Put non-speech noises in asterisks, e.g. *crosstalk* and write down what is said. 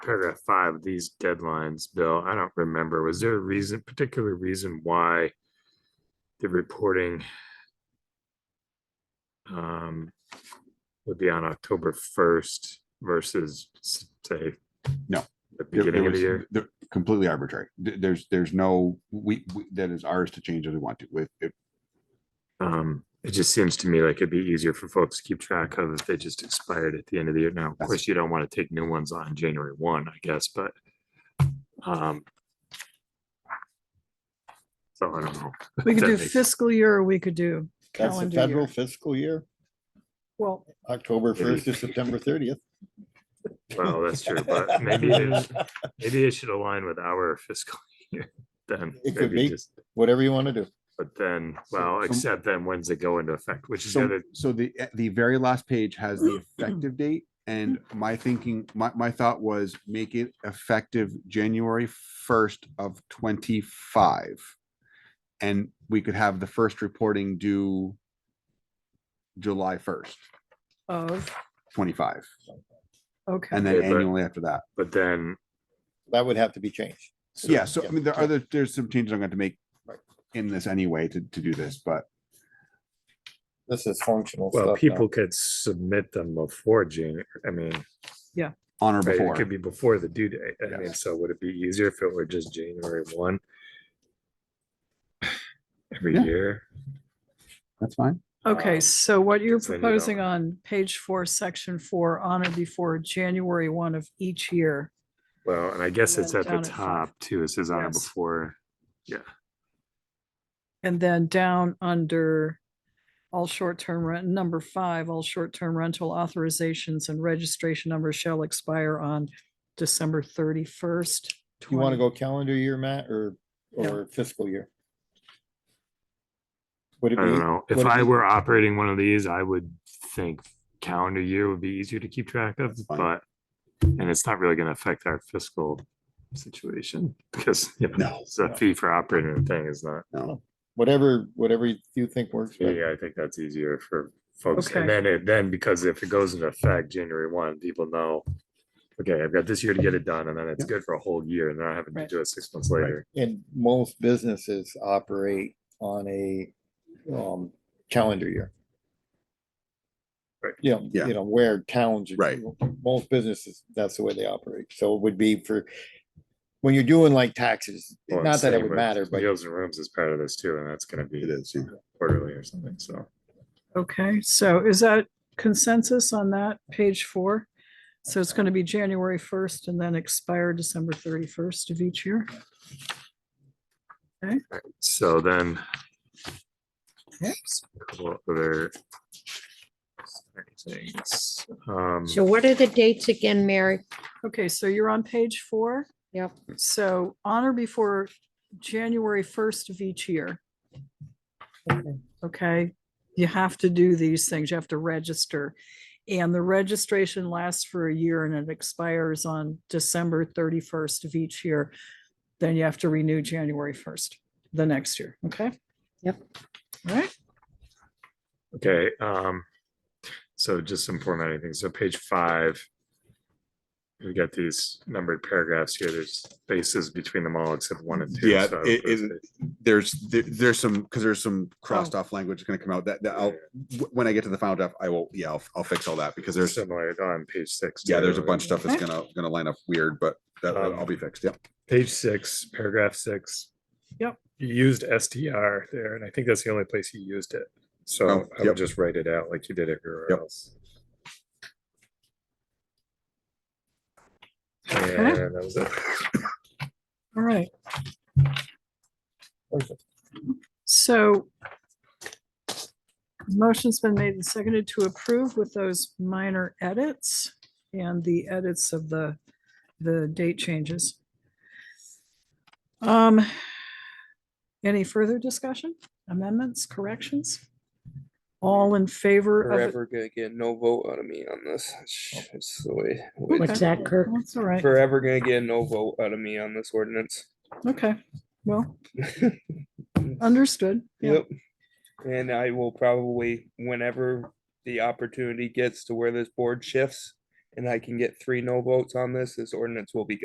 paragraph five, of these deadlines, Bill, I don't remember. Was there a reason, particular reason why the reporting um, would be on October first versus s- say No. the It- it beginning of was the year? th- Completely arbitrary. Th- There's, there's no, we, we- that is ours to change as we want to with, if, Um, it just seems to me like it'd be easier for folks to keep track of if they just expired at the end of the year. Now, of That's- course, you don't want to take new ones on January one, I guess, but um so I don't know. We could That do makes- fiscal year or we could do That's the calendar federal year. fiscal year, Well, October Maybe. first to September thirtieth. Well, that's true, *laughs* but maybe it, maybe it should align with our *laughs* fiscal year then. It could maybe be. just- Whatever you want to do. But then, So- well, so- except then when's it go into effect, which is the so, other, so the, eh, the very last page has the effective date. And my thinking, my, my thought was make it effective January first of twenty-five. And we could have the first reporting due July first, of, twenty-five, okay, and then Okay, but- annually after that. but then, That would have to be changed. Yeah, so I mean, there yeah. are other, there's some changes I'm going to make Right. in this anyway to, to do this, but This is functional stuff. well, now. people could submit them before January. I mean, on or Right, It before. could be before the due date. I mean, Yes. so would it be easier if it were just January one? *sighs* Every Yeah. year? That's fine. okay, so what you're because then you don't- proposing on page four, section four, on or before January one of each year. Well, and I guess And it's then at the down at five. top too. It says on or Yes. before. And then down under all short-term rent, number five, all short-term rental authorizations and registration numbers shall expire on December thirty-first. You want to go calendar year, Matt, or, No. or fiscal year? I Would it don't be, know. If would it I be- were operating one of these, I would think calendar year would be easier to keep track of, That's fine. but and it's not really gonna affect our fiscal situation *laughs* because, you know, No. it's a No. fee for operating the thing is not. No, whatever, whatever you think works, better. Yeah, I think that's easier for folks. Okay. And then it, then because if it goes into effect January one, people know, okay, I've got this year to get it done and then it's Yeah. good for a whole year and then I have to Right. do it six months Right. later. and most businesses operate on a, um, calendar year. Right. You know, Yeah. you know, where towns. Right. Most businesses, that's the way they operate. So it would be for, when you're doing like taxes, Well, I'm not that it saying would with matter, but Meals and rooms is part of this too, and that's gonna it be is. yeah. quarterly or something, so. Okay, so is that consensus on that, page four? So it's going to be January first and then expire December thirty-first of each year? So then. Yep. Couple other things, um, So what are the dates again, Mary? Okay, so you're on page four? Yep. So on or before January first of each year, okay? You have to do these things, you have to register. And the registration lasts for a year and it expires on December thirty-first of each year. Then you have to renew January first, the next year, okay? Yep. All right, okay, um, so just some formatting things, so page five. We've got these numbered paragraphs here, there's spaces between them all except one and two. Yeah, so I it- would- it- There's, there- there's some, because there's some crossed off language that's going to come out that, that I'll, wh- when I get to the final draft, I will, yeah, I'll, I'll fix all that because They're there's, similar on page six. yeah, there's a too. bunch of stuff that's Okay. gonna, gonna line up weird, but that, Um, I'll be fixed. Yep. Page six, paragraph six. Yep. You used STR there, and I think that's the only place you used it. So Oh, I would yep. just write it out like you did everywhere Yep. else. And that was it. all right. So motion's been made and seconded to approve with those minor edits and the edits of the, the date changes. Um, any further discussion, amendments, corrections? All in favor of it? forever gonna get no vote out of me on this. It's- It's the way. the way Okay. What's that, Kirk? That's all right, Forever gonna get no vote out of me on this ordinance. *laughs* okay, well, understood. Yeah. Yep. And I will probably, whenever the opportunity gets to where this board shifts, and I can get three no votes on this, this ordinance will be